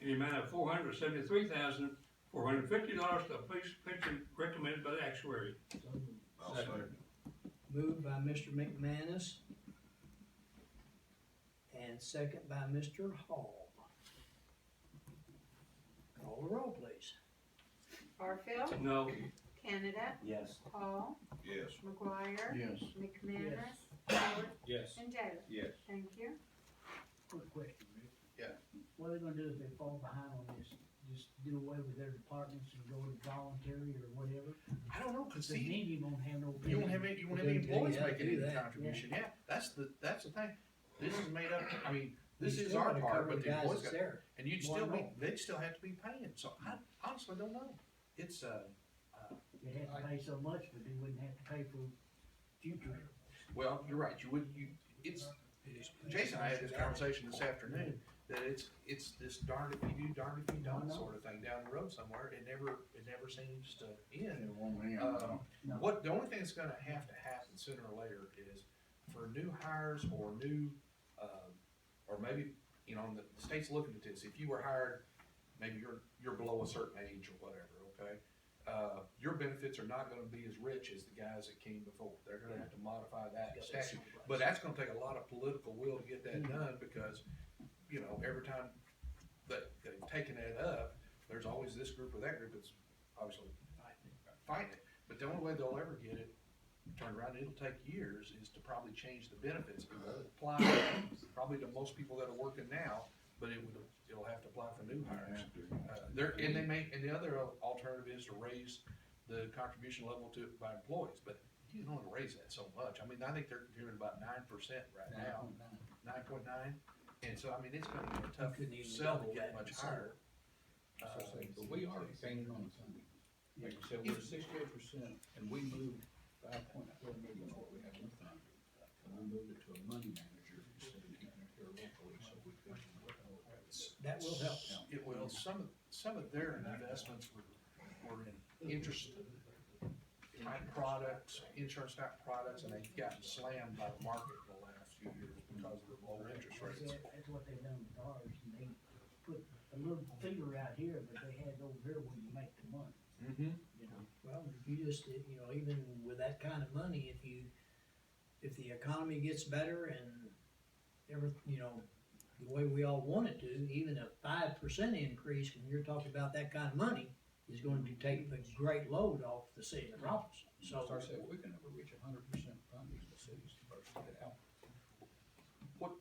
in the amount of four hundred seventy-three thousand, four hundred fifty dollars to the police pension recommended by the actuary. So moved. I'll second. Moved by Mr. McManus. And second by Mr. Hall. Call the roll, please. Barfield, No, Canada, Yes. Hall, Yes. McGuire. Yes. McManus, Howard, Yes. and Taylor. Yes. Thank you. Quick question, Rick. Yeah. What are they gonna do if they fall behind on this? Just do away with their departments and go to voluntary or whatever? I don't know, cause The see, media won't have no. you don't have any, you won't have They- any they employees gotta do making any that, yeah. contribution, yeah, that's the, that's the thing. This is made up, I mean, this You is still our gotta part, cover but the guys employees that's got, there. and you'd Why still be, not? they'd still have to be paying, so I honestly don't know. It's, uh, They'd have to pay so much, but they wouldn't have to pay for future. well, you're right, you would, you, it's, Jason and I had this conversation this afternoon, that it's, it's this darn if you do, darn if you don't sort of thing down the road somewhere, it never, it never seems to end. Um, No. What, the only thing that's gonna have to happen sooner or later is for new hires or new, um, or maybe, you know, the the state's looking at this, if you were hired, maybe you're, you're below a certain age or whatever, okay? Uh, your benefits are not gonna be as rich as the guys that came before, they're gonna have to modify that statute. But that's gonna take a lot of political will to get that done, because, you know, every time that, they've taken that up, there's always this group or that group that's obviously fighting it. But the only way they'll ever get it turned around, it'll take years, is to probably change the benefits. It won't apply probably to most people that are working now, but it would, it'll have to apply for new hires. Uh, There, and they may, and the other alternative is to raise the contribution level to, by employees, but you don't wanna raise that so much. I mean, I think they're doing about nine percent right now, nine point nine. And so, I mean, it's gonna be a tough Couldn't even sell double to that get in much higher. Uh, But we are paying on Sunday. Like you said, we're sixty-eight percent and we moved five point four million what we had with them. And we moved it to a money manager instead of keeping it here locally, so we could. That will help. It will, some of, some of their investments were, were in interest type products, insurance type products, and they've gotten slammed by the market in the last few years because of the low interest That's rates. it. That's what they've done with ours, and they put a little finger out here, but they had it over here when you make the money, Mm-hmm. you know? Well, you just, you know, even with that kind of money, if you, if the economy gets better and every, you know, the way we all want it to, even a five percent increase, when you're talking about that kind of money, is going to take a great load off the city of Robinson, so. So I said, we can never reach hundred percent funding the cities to burst it out. What,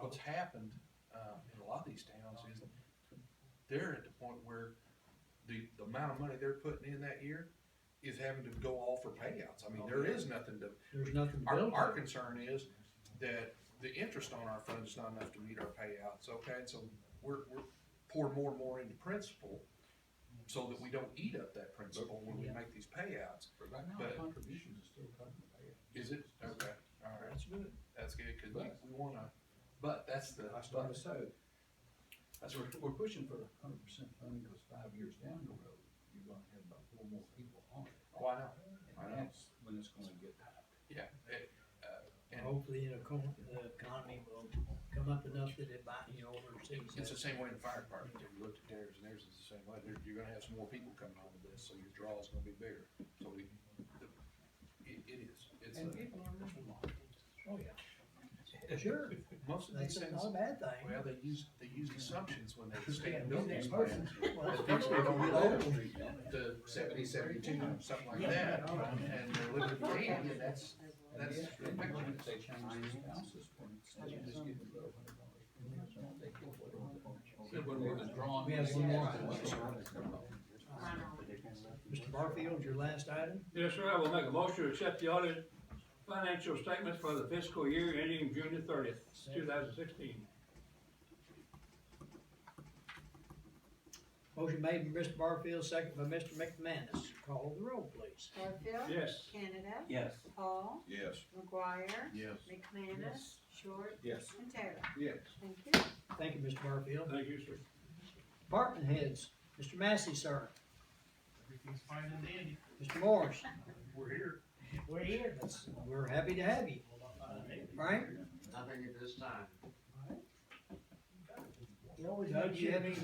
what's happened, uh, in a lot of these towns is they're at the point where the, the amount of money they're putting in that year is having to go all for payouts. I mean, there is nothing to, There's nothing Our, built. our concern is that the interest on our funds is not enough to meet our payouts, okay, and so we're, we're pour more and more into principal so that we don't eat up that principal when we Yeah. make these payouts. But right now, But- our contributions are still covering the payout. Is it? Okay, alright, that's good, that's good, cause But- we, we wanna, but that's the, I started to say, that's we're, we're pushing for hundred percent funding, because five years down the road, you're gonna have about four more people on it. why not? I know. And that's when it's gonna get Yeah, it, And Hopefully, the econ- the economy will come up enough that it buy, you know, overseas. it's the same way in the fire department, if you looked at theirs and theirs is the same way, There- you're gonna have some more people coming on with this, so your draw is gonna be bigger, so we, it, it is, it's a. And people are miserable. Oh, yeah. Sure, Most of these that's things, not a well, bad thing. they use, they use assumptions when they Yeah, stand we're next buildings. plans. person. But people don't live to seventy, seventy-two, something like that, and they're living in ten, and that's, That's, That's- they might want to change the spouses for instead of just giving them a hundred dollars. They give what they want. Said when we was drawing. We have some more. Mr. Mr. Barfield, your last item? yes, sir, I will make a motion to accept the audit financial statements for the fiscal year ending June the thirtieth, two thousand sixteen. Motion made by Mr. Barfield, second by Mr. McManus. Call the roll, please. Barfield. Yes. Canada, Yes. Hall, Yes. McGuire, Yes. McManus, Short, Yes. and Taylor. Yes. Thank you. Thank you, Mr. Barfield. Thank you, sir. Department heads, Mr. Massey, sir. Everything's fine and dandy. Mr. Morris, We're here. We're here. that's- we're happy to have you. Frank? Nothing at this time. Doug, do you have any